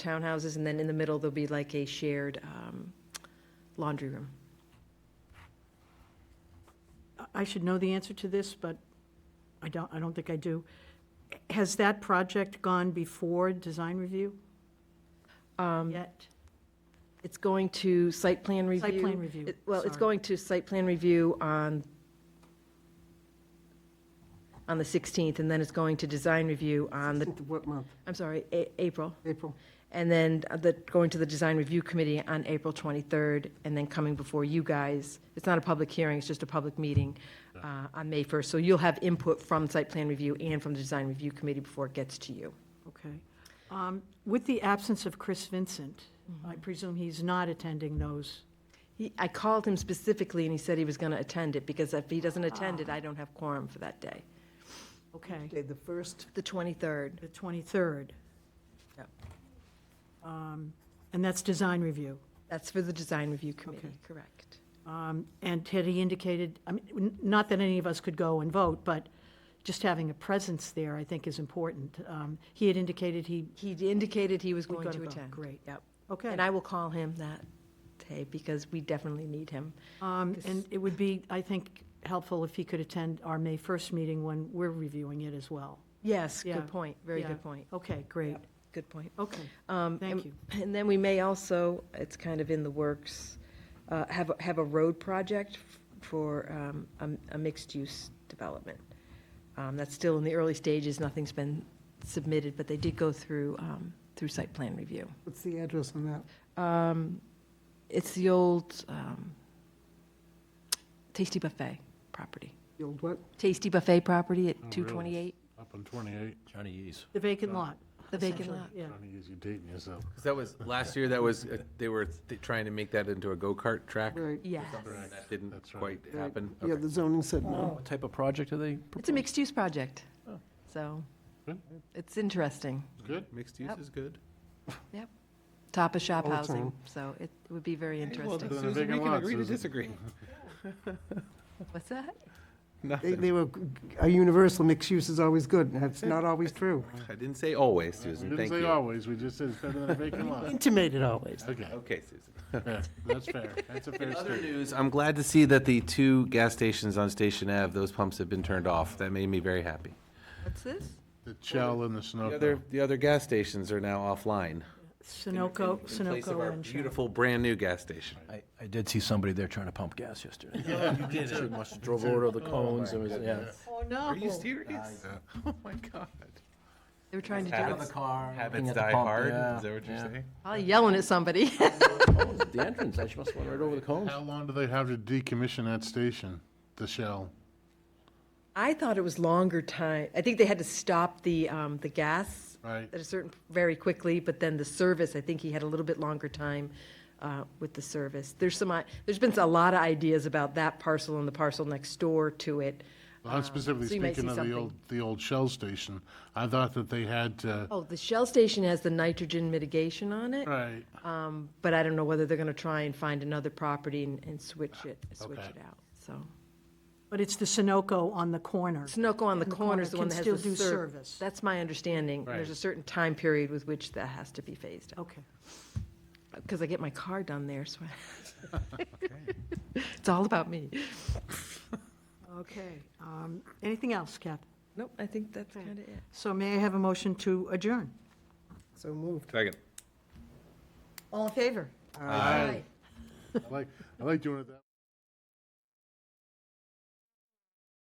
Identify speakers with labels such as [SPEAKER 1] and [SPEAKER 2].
[SPEAKER 1] townhouses, and then in the middle, there'll be like a shared um, laundry room.
[SPEAKER 2] I should know the answer to this, but I don't, I don't think I do. Has that project gone before design review? Yet?
[SPEAKER 1] It's going to site plan Um, review.
[SPEAKER 2] Site plan review,
[SPEAKER 1] It- Well, it's
[SPEAKER 2] sorry.
[SPEAKER 1] going to site plan review on, on the 16th, and then it's going to design review on the,
[SPEAKER 3] What month?
[SPEAKER 1] I'm sorry, A- April.
[SPEAKER 3] April?
[SPEAKER 1] And then uh, the, going to the design review committee on April 23rd, and then coming before you guys. It's not a public hearing, it's just a public meeting uh, on May 1st. So you'll have input from site plan review and from the design review committee before it gets to you.
[SPEAKER 2] Okay. Um, With the absence of Chris Vincent, I presume he's not attending those.
[SPEAKER 1] He- I called him specifically, and he said he was going to attend it, because if he doesn't attend it, I don't have quorum for that day.
[SPEAKER 2] Okay,
[SPEAKER 3] Okay, the first,
[SPEAKER 1] The 23rd.
[SPEAKER 2] the 23rd.
[SPEAKER 1] Yep.
[SPEAKER 2] Um, And that's design review.
[SPEAKER 1] That's for the design review committee,
[SPEAKER 2] Okay.
[SPEAKER 1] correct?
[SPEAKER 2] Um, And had he indicated, I mean, n- not that any of us could go and vote, but just having a presence there, I think, is important. Um, He had indicated he,
[SPEAKER 1] He indicated he was
[SPEAKER 2] We
[SPEAKER 1] going
[SPEAKER 2] gotta
[SPEAKER 1] to
[SPEAKER 2] go.
[SPEAKER 1] attend.
[SPEAKER 2] Great.
[SPEAKER 1] Yep.
[SPEAKER 2] okay.
[SPEAKER 1] And I will call him that day, because we definitely need him.
[SPEAKER 2] Um,
[SPEAKER 1] This-
[SPEAKER 2] And it would be, I think, helpful if he could attend our May 1st meeting when we're reviewing it as well.
[SPEAKER 1] Yes,
[SPEAKER 2] Yeah.
[SPEAKER 1] good point, very
[SPEAKER 2] Yeah.
[SPEAKER 1] good point,
[SPEAKER 2] Okay, great.
[SPEAKER 1] good point.
[SPEAKER 2] Okay,
[SPEAKER 1] Um,
[SPEAKER 2] thank
[SPEAKER 1] and-
[SPEAKER 2] you.
[SPEAKER 1] And then we may also, it's kind of in the works, uh, have, a- have a road project f- for um, a a mixed-use development. Um, That's still in the early stages, nothing's been submitted, but they did go through, um, through site plan review.
[SPEAKER 3] what's the address on that?
[SPEAKER 1] Um, It's the old um, Tasty Buffet property.
[SPEAKER 3] The old what?
[SPEAKER 1] Tasty Buffet property at
[SPEAKER 4] Oh, really?
[SPEAKER 1] 228,
[SPEAKER 4] Up on 28,
[SPEAKER 5] Johnny E's.
[SPEAKER 2] The vacant lot.
[SPEAKER 1] the vacant
[SPEAKER 2] essentially,
[SPEAKER 1] lot.
[SPEAKER 2] Yeah.
[SPEAKER 4] trying to use you dating yourself.
[SPEAKER 6] Because that was, last year, that was, uh, they were th- trying to make that into a go-kart track.
[SPEAKER 3] Right.
[SPEAKER 1] Yes.
[SPEAKER 6] and That didn't
[SPEAKER 4] That's right.
[SPEAKER 6] quite happen.
[SPEAKER 3] Yeah,
[SPEAKER 6] Okay.
[SPEAKER 3] the zoning said no.
[SPEAKER 5] What type of project are they?
[SPEAKER 1] It's a mixed-use project,
[SPEAKER 5] Oh.
[SPEAKER 1] so
[SPEAKER 4] Good.
[SPEAKER 1] it's interesting.
[SPEAKER 4] Good.
[SPEAKER 6] Mixed use
[SPEAKER 1] Yep.
[SPEAKER 6] is good.
[SPEAKER 1] Top of shop
[SPEAKER 3] All the
[SPEAKER 1] housing,
[SPEAKER 3] time.
[SPEAKER 1] so it would be very interesting.
[SPEAKER 4] then Susan, we can agree to
[SPEAKER 6] disagree.
[SPEAKER 1] What's that?
[SPEAKER 3] They, they were, a universal mixed use is always good, and that's not always true.
[SPEAKER 6] I didn't say always,
[SPEAKER 4] We
[SPEAKER 6] Susan,
[SPEAKER 4] didn't
[SPEAKER 6] thank
[SPEAKER 4] say
[SPEAKER 6] you.
[SPEAKER 4] always, we just said it's better than a vacant lot.
[SPEAKER 3] Intimated always.
[SPEAKER 4] Okay,
[SPEAKER 6] Okay, Susan.
[SPEAKER 4] fair. that's fair, that's a fair
[SPEAKER 6] In other
[SPEAKER 4] statement.
[SPEAKER 6] news, I'm glad to see that the two gas stations on Station Ave, those pumps have been turned off. That made me very happy.
[SPEAKER 1] What's this?
[SPEAKER 4] The shell and the
[SPEAKER 6] The other,
[SPEAKER 4] snow.
[SPEAKER 6] the other gas stations are now offline. in-
[SPEAKER 2] Sunoco,
[SPEAKER 6] in- In place of
[SPEAKER 2] Sunoco
[SPEAKER 6] our
[SPEAKER 2] and Shell.
[SPEAKER 6] beautiful, brand-new gas station.
[SPEAKER 5] I, I did see somebody there trying to pump gas yesterday. Oh,
[SPEAKER 4] She
[SPEAKER 5] must have drove over to the cones and was, yeah.
[SPEAKER 2] Oh, no.
[SPEAKER 6] Are you serious? Oh, my God.
[SPEAKER 1] They were trying to do
[SPEAKER 6] Habits
[SPEAKER 1] it.
[SPEAKER 5] looking
[SPEAKER 6] habits
[SPEAKER 5] at the
[SPEAKER 6] die
[SPEAKER 5] pump,
[SPEAKER 6] hard,
[SPEAKER 5] yeah,
[SPEAKER 6] is that what you're
[SPEAKER 5] yeah.
[SPEAKER 6] saying?
[SPEAKER 1] Probably yelling at somebody.
[SPEAKER 5] The entrance, I must have went right over the cones.
[SPEAKER 4] How long do they have to decommission that station, the shell?
[SPEAKER 1] I thought it was longer time. I think they had to stop the, um, the gas
[SPEAKER 4] Right.
[SPEAKER 1] at a certain, very quickly, but then the service, I think he had a little bit longer time, uh, with the service. There's some, i- there's been a lot of ideas about that parcel and the parcel next door to it. Um,
[SPEAKER 4] Well, I'm specifically
[SPEAKER 1] so you might
[SPEAKER 4] speaking
[SPEAKER 1] see
[SPEAKER 4] of the
[SPEAKER 1] something.
[SPEAKER 4] old, the old shell station. I thought that they had to,
[SPEAKER 1] Oh, the Shell station has the nitrogen mitigation on it.
[SPEAKER 4] right,
[SPEAKER 1] Um, But I don't know whether they're going to try and find another property and, and switch it, switch
[SPEAKER 4] Uh, Okay.
[SPEAKER 1] it out, so.
[SPEAKER 2] But it's the Sunoco on the corner.
[SPEAKER 1] Sunoco on the
[SPEAKER 2] And the
[SPEAKER 1] corner is the
[SPEAKER 2] corner
[SPEAKER 1] one
[SPEAKER 2] can
[SPEAKER 1] that
[SPEAKER 2] still
[SPEAKER 1] has the
[SPEAKER 2] do
[SPEAKER 1] serv.
[SPEAKER 2] service.
[SPEAKER 1] That's my understanding. There's a
[SPEAKER 4] Right.
[SPEAKER 1] certain time period with which that has to be phased out,
[SPEAKER 2] Okay.
[SPEAKER 1] because I get my car done there, so. I- It's all about me.
[SPEAKER 2] Okay. Um, Anything else, Kath?
[SPEAKER 1] Nope, I think that's kind of it.
[SPEAKER 2] So may I have a motion to adjourn?
[SPEAKER 3] So moved.
[SPEAKER 6] Second.
[SPEAKER 2] All in favor?
[SPEAKER 4] I like, I like doing it that